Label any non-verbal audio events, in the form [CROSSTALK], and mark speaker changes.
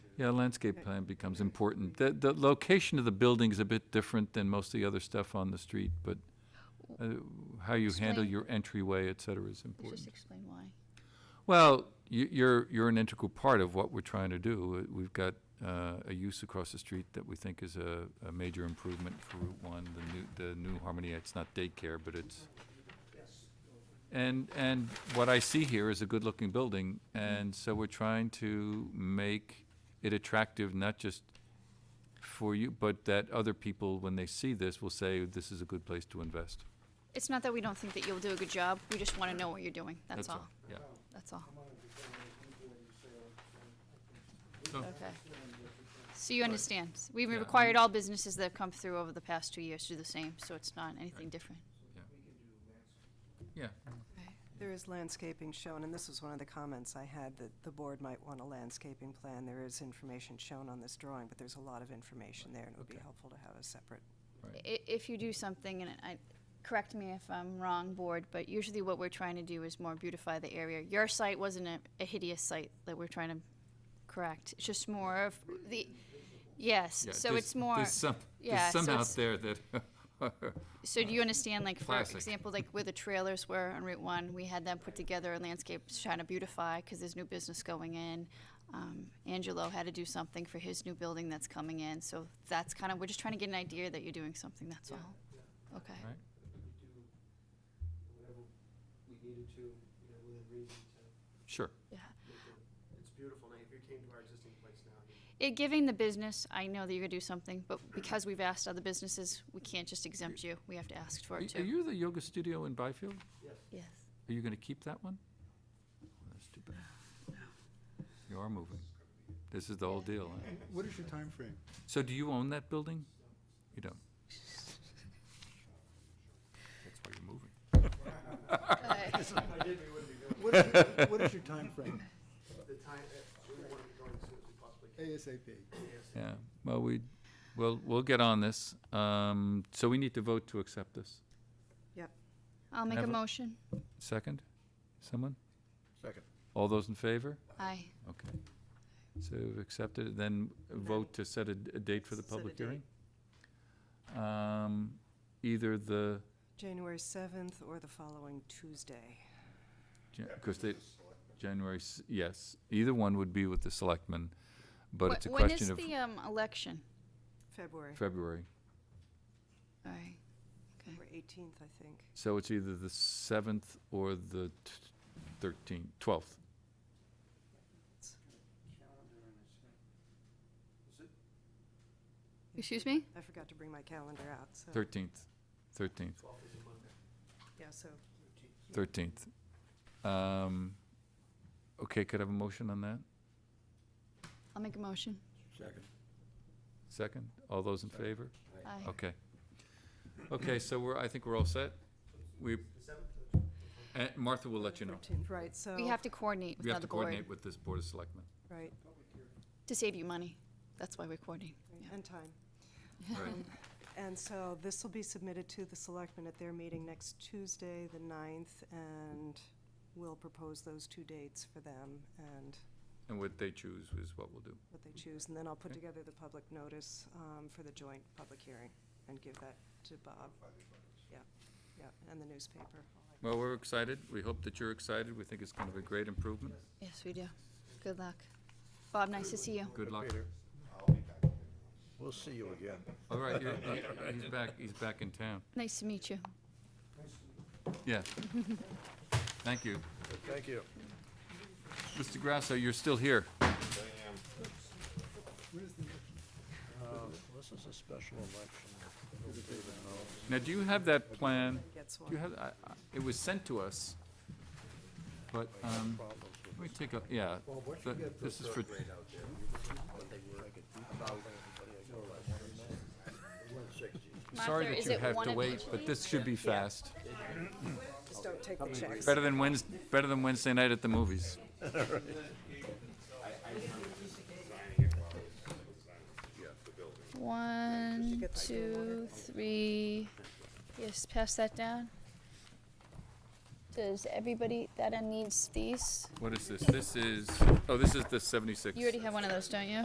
Speaker 1: Yeah, landscape plan becomes important. The, the location of the building is a bit different than most of the other stuff on the street, but uh, how you handle
Speaker 2: Explain.
Speaker 1: your entryway, et cetera, is
Speaker 2: Let's
Speaker 1: important.
Speaker 2: just explain why.
Speaker 1: Well, you, you're, you're an integral part of what we're trying to do. Uh, We've got, uh, a use across the street that we think is a, a major improvement for Route One, the new, the new Harmony, it's not daycare, but it's. And, and what I see here is a good-looking building, and so we're trying to make it attractive, not just for you, but that other people, when they see this, will say, this is a good place to invest.
Speaker 2: It's not that we don't think that you'll do a good job, we just want to know what you're doing, that's all,
Speaker 1: Yeah.
Speaker 2: that's all. Okay. So you understand, S- we've
Speaker 1: Yeah, I
Speaker 2: required all businesses that have come through over the past two years to do the same, so it's not anything different.
Speaker 1: Yeah,
Speaker 3: There is landscaping shown, and this was one of the comments I had, that the board might want a landscaping plan. There is information shown on this drawing, but there's a lot of information there, and it would be
Speaker 1: Okay.
Speaker 3: helpful to have a separate.
Speaker 2: I- if you do something, and I, correct me if I'm wrong, board, but usually what we're trying to do is more beautify the area. Your site wasn't a, a hideous site that we're trying to correct, it's just more of the, yes,
Speaker 1: Yeah,
Speaker 2: so
Speaker 1: there's-
Speaker 2: it's more.
Speaker 1: There's some, there's
Speaker 2: yeah, so
Speaker 1: some out
Speaker 2: it's-
Speaker 1: there that, [LAUGHS]
Speaker 2: So do you understand, like, for
Speaker 1: Classic.
Speaker 2: example, like where the trailers were on Route One, we had them put together in landscapes trying to beautify, because there's new business going in. Um, Angelo had to do something for his new building that's coming in, so that's kind of, we're just trying to get an idea that you're doing something, that's all. Okay,
Speaker 1: Right.
Speaker 4: whatever we needed to, you know, within reason to
Speaker 1: sure,
Speaker 2: yeah.
Speaker 4: make it. It's beautiful now, if you came to our existing place now, you
Speaker 2: It, giving the business, I know that you're gonna do something, but because we've asked other businesses, we can't just exempt you, we have to ask for
Speaker 1: Are
Speaker 2: it
Speaker 1: y- are
Speaker 2: too.
Speaker 1: you the yoga studio in Byfield?
Speaker 4: yes.
Speaker 1: [LAUGHS]
Speaker 2: Yes.
Speaker 1: Are you gonna keep that one? Oh, That's too bad. You are moving. This is the whole deal. huh?
Speaker 5: What is your time
Speaker 4: [LAUGHS]
Speaker 5: frame?
Speaker 1: So do you own that building? You don't? That's why you're moving.
Speaker 4: If I did, we wouldn't be doing
Speaker 5: What is your- what is your timeframe?
Speaker 4: it. The time, uh, we want to be going as soon as we possibly can.
Speaker 5: ASAP.
Speaker 1: Yeah, well, we, well, we'll get on this. Um, so we need to vote to accept this.
Speaker 2: I'll make a
Speaker 1: Have a-
Speaker 2: motion,
Speaker 1: Second? Someone?
Speaker 5: Second.
Speaker 1: All those in favor?
Speaker 2: aye.
Speaker 1: Okay. So we've accepted, it. then vote to set a, d- a date for the
Speaker 3: Set a
Speaker 1: public
Speaker 3: date.
Speaker 1: hearing? Um, either the,
Speaker 3: January 7th or the following Tuesday.
Speaker 1: because they, January, s- yes, either one would be with the selectmen, but
Speaker 2: Wh-
Speaker 1: it's a question of
Speaker 2: When is the, um, election?
Speaker 3: February,
Speaker 1: February.
Speaker 2: All right.
Speaker 3: or 18th, I think.
Speaker 1: So it's either the seventh or the t- thirteenth, twelfth.
Speaker 2: Excuse me?
Speaker 3: I forgot to bring my calendar out, so.
Speaker 1: Thirteenth, thirteenth,
Speaker 3: Yeah, so
Speaker 1: thirteenth. Um, okay, could I have a motion on that?
Speaker 2: I'll make a motion.
Speaker 5: Second.
Speaker 1: Second? All those in favor?
Speaker 2: Aye.
Speaker 1: Okay. Okay, so we're, I think we're all set. We, Uh, Martha will let you know.
Speaker 3: 13th, right, so,
Speaker 2: We have to coordinate with
Speaker 1: We have
Speaker 2: another
Speaker 1: to
Speaker 2: board
Speaker 1: coordinate with this Board of Selectmen.
Speaker 3: right,
Speaker 2: to save you money. That's why we're coordinating. Yeah.
Speaker 3: and time.
Speaker 1: Right.
Speaker 3: And so this will be submitted to the selectmen at their meeting next Tuesday, the 9th, and we'll propose those two dates for them and
Speaker 1: And what they choose is what we'll do.
Speaker 3: what they choose. And then I'll put
Speaker 1: Okay.
Speaker 3: together the public notice um, for the joint public hearing and give that to Bob. Yeah, yeah, and the newspaper.
Speaker 1: Well, we're excited. We hope that you're excited. We think it's going to be a great improvement.
Speaker 2: Yes, we do. Good luck. Bob, nice to see you.
Speaker 1: Good luck.
Speaker 5: We'll see you again.
Speaker 1: All right, you're- uh, he's back, he's back in town.
Speaker 2: Nice to meet you.
Speaker 1: Yeah. Thank you.
Speaker 5: Thank you.
Speaker 1: Mr. Grasso, you're still here.
Speaker 5: This is a special election.
Speaker 1: Now, do you have that plan?
Speaker 3: Gets
Speaker 1: You
Speaker 3: one.
Speaker 1: had, I- I- it was sent to us, but, um, let me take a, yeah. th- This is for, sorry
Speaker 2: Martha,
Speaker 1: that
Speaker 2: is
Speaker 1: you
Speaker 2: it
Speaker 1: have
Speaker 2: one
Speaker 1: to
Speaker 2: of
Speaker 1: wait,
Speaker 2: each
Speaker 1: but this should be fast.
Speaker 3: Just don't take the checks.
Speaker 1: Better than Wednes, better than Wednesday night at the movies.
Speaker 2: One,
Speaker 3: get that
Speaker 2: two, three. Yes, pass that down. Does everybody, that end needs these?
Speaker 1: What is this? This is, oh, this is the 76.
Speaker 2: You already have one of those, don't you?